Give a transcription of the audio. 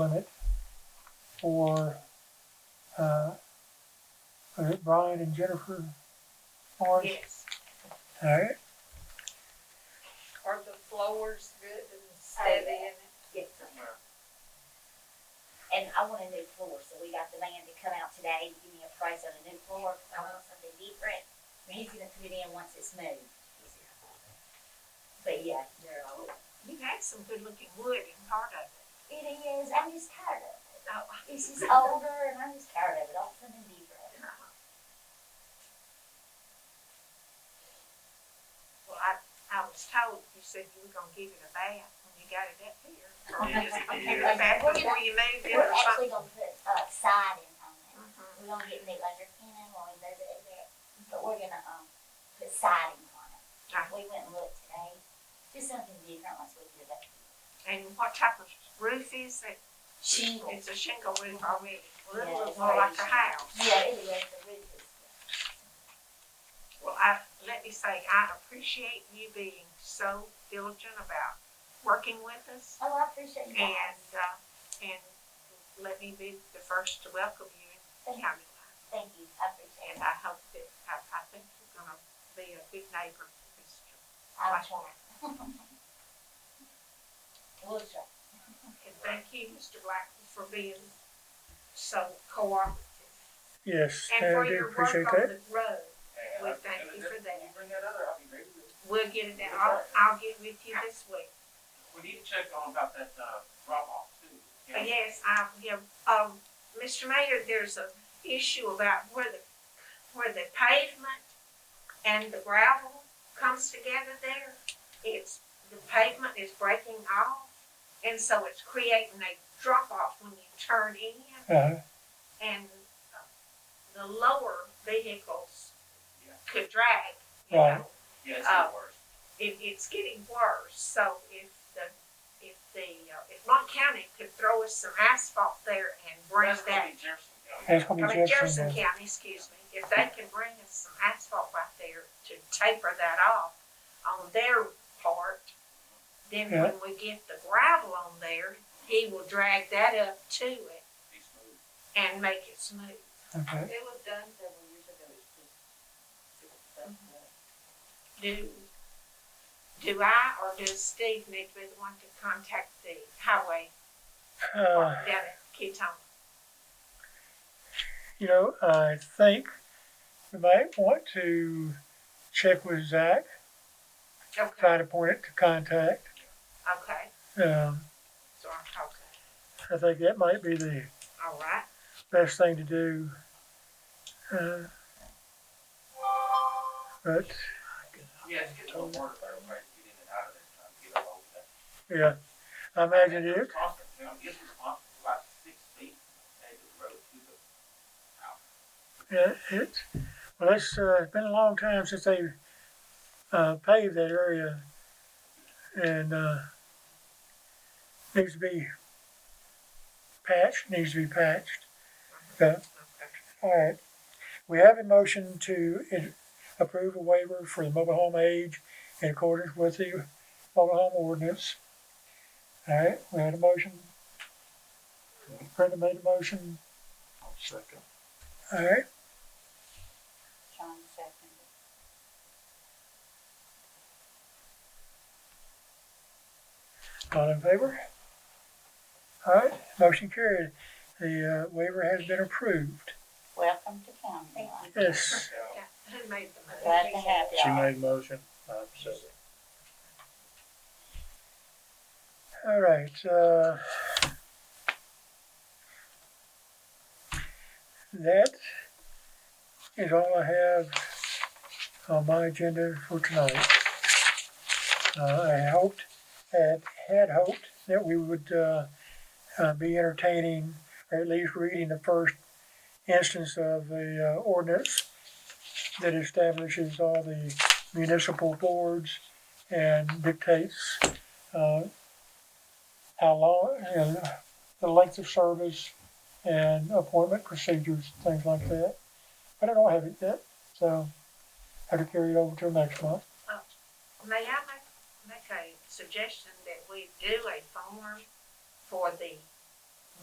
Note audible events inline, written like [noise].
limit for, uh, was it Brian and Jennifer Morris? Yes, All right, are the floors good and steady and? get somewhere. And I want a new floor, so we got the man to come out today, to give me a price on a new floor, 'cause I want something different. [laughs] And he's gonna put it in once it's moved. But yeah, they're all, You had some good looking wood in part of it. it is, I'm just tired of it. No, It's just older and I'm just tired of it, I want something different. Well, I, I was told, you said you were gonna give it a bath when you got it up here. Or just give it a bath before you moved it or We're actually something. gonna put, uh, siding on it. Mhm. We're gonna get new underpinning when we move it in there, but we're gonna, um, put siding on it. Right. We went and looked today, just something different once we do that. And what type of roof is it? Shingle. It's a shingle roof already, a little Yeah, bit more like a right. house. Yeah, it was the roof. Well, I, let me say, I appreciate you being so diligent about working with us. Oh, I appreciate you And, guys. uh, and let me be the first to welcome you in Thank, county life. thank you. I appreciate And it. I hope that, I, I think you're gonna be a good neighbor to this church. I'll try. We'll try. And thank you, Mr. Blackwood, for being so cooperative. yes, And I for do your work appreciate on that. the road, And we I- thank and you if for that. You bring that other, I'll be ready with it. We'll get it out, I'll, I'll get with you this week. We need to check on about that, uh, drop off too. Uh, Yes, I, yeah, um, Mr. Mayor, there's a issue about where the, where the pavement and the gravel comes together there. It's, the pavement is breaking off, and so it's creating a drop off when you turn in, Uh-huh, and uh, the lower vehicles Yeah. could drag, you Right. know. Yeah, it's the Oh. worst. It, it's getting worse, so if the, if the, uh, if Monk County could throw us some asphalt there and bring That's gonna that be Jefferson County. that's gonna I be mean, Jefferson Jefferson. County, excuse me, if they can bring us some asphalt right there to taper that off on their part, then Yeah. when we get the gravel on there, he will drag that up to it Be smooth. and make it smooth. then. Okay, It was done several years ago, it's just, it's stuff that, Mm-hmm. Do, do I or does Steve need to be the one to contact the highway uh, department down at Ketone? you know, I think you might want to check with Zach, Okay, try to point it to contact. okay, Um, so I'm talking, I think that might be the all right. best thing to do. Uh, But, Yeah, it's getting a little worse, everybody's getting in and out of there, trying to get a hold of that. yeah, I imagine it, Constant, you know, it's constant, about six feet, edge of the road to the house. Yeah, it's, well, it's, uh, it's been a long time since they, uh, paved that area. And, uh, needs to be patched, needs to be patched. Okay, all right. We have a motion to i- approve a waiver for the mobile home age in accordance with the mobile home ordinance. All right, we had a motion. Brenda made a motion, second. all right. John seconded. All in favor? All right, motion carried. The uh, waiver has been approved. Welcome to county Thank life. Yes, Yeah, who made the move? Glad to have She y'all. made motion, I'm second. all right. uh, That is all I have on my agenda for tonight. Uh, I hoped, had, had hoped that we would uh, uh, be entertaining, or at least reading the first instance of the uh, ordinance that establishes all the municipal boards and dictates uh, how long, and the length of service and appointment procedures, things like that. But I don't have it yet, so I have to carry it over till next month. May I make, make a suggestion that we do a form for the